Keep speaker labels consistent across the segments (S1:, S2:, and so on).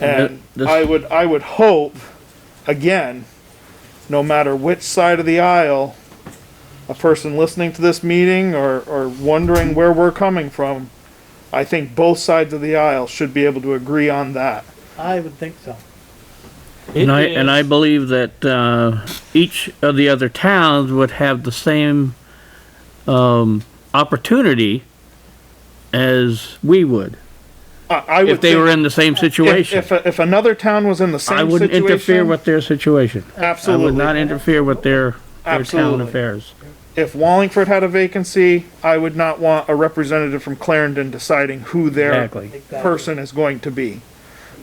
S1: And
S2: Th- this-
S1: I would, I would hope, again, no matter which side of the aisle, a person listening to this meeting or, or wondering where we're coming from, I think both sides of the aisle should be able to agree on that.
S3: I would think so.
S2: And I, and I
S4: It is-
S2: believe that, uh, each of the other towns would have the same, um, opportunity as we would,
S1: I, I would
S2: if they were
S1: think
S2: in the same
S1: if,
S2: situation.
S1: if, if another town was in the same
S2: I
S1: situation.
S2: wouldn't interfere with their situation. I would not
S1: Absolutely.
S2: interfere with their, their town
S1: Absolutely.
S2: affairs.
S1: If Wallingford had a vacancy, I would not want a representative from Clarendon deciding who their
S2: Exactly.
S1: person is going to be.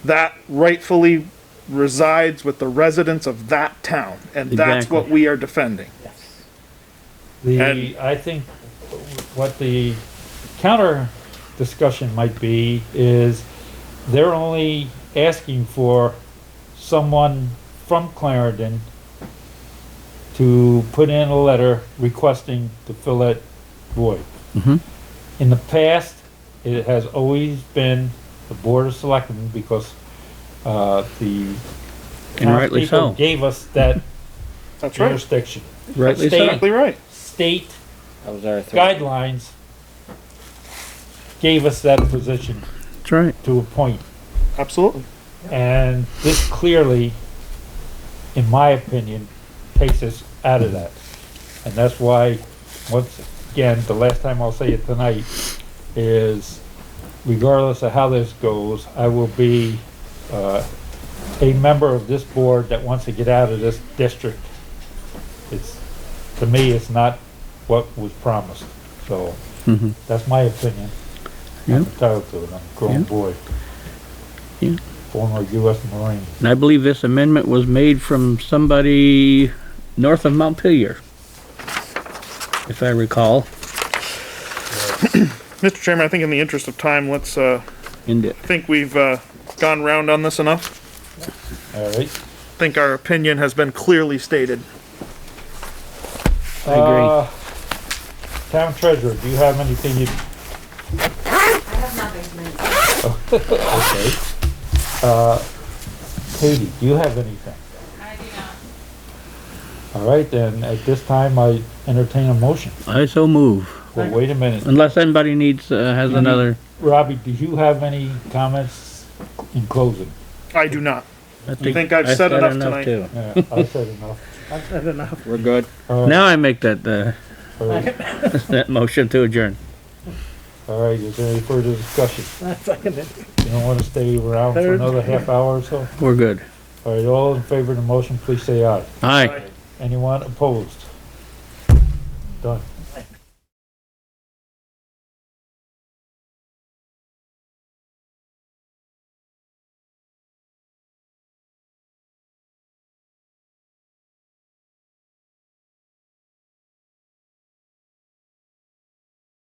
S1: That rightfully resides with the residents of that town, and that's
S2: Exactly.
S1: what we are defending.
S3: Yes.
S1: And-
S4: The, I think what the counter discussion might be is they're only asking for someone from Clarendon to put in a letter requesting to fill that void.
S2: Mhm.
S4: In the past, it has always been the Board of Selectmen because, uh, the
S2: And rightly
S4: townspeople
S2: so.
S4: Gave us that
S1: That's right.
S4: jurisdiction.
S2: Rightly
S4: State-
S2: so.
S1: Exactly right.
S4: State
S5: That was our three.
S4: guidelines gave us that position
S2: That's right.
S4: to a point.
S1: Absolutely.
S4: And this clearly, in my opinion, takes us out of that. And that's why, once again, the last time I'll say it tonight is regardless of how this goes, I will be, uh, a member of this board that wants to get out of this district. It's, to me, it's not what was promised. So
S2: Mhm.
S4: that's my opinion.
S2: Yeah.
S4: I'm entitled to it. I'm a grown
S2: Yeah.
S4: boy.
S2: Yeah.
S4: Former US Marine.
S2: And I believe this amendment was made from somebody north of Montpelier, if I recall,
S1: Mr. Chairman, I think in the interest of time, let's, uh,
S2: in the
S1: I think we've, uh, gone round on this enough.
S4: All right.
S1: I think our opinion has been clearly stated.
S2: I agree.
S4: Uh, Town treasurer, do you have anything you,
S6: I have nothing to mention.
S4: okay. Uh, Katie, do you have anything?
S6: I do not.
S4: All right, then, at this time, I entertain a motion.
S2: I so move.
S4: Well, wait a minute.
S2: Unless anybody needs, uh, has
S1: Mm-hmm.
S2: another,
S4: Robbie, do you have any comments in closing?
S1: I do not.
S2: I
S1: think I've said enough tonight.
S2: too.
S4: Uh, I said enough.
S3: I've said enough.
S5: We're good.
S4: All right,
S2: Now I make that, uh,
S4: all right,
S2: that motion to adjourn.
S4: all right, is there any further discussion?
S3: I second it.
S4: You don't wanna stay around for
S3: Third.
S4: another half hour or so?
S2: We're good.
S4: All right, all in favor of the motion, please say aye.
S2: Aye.
S4: Anyone opposed? Done.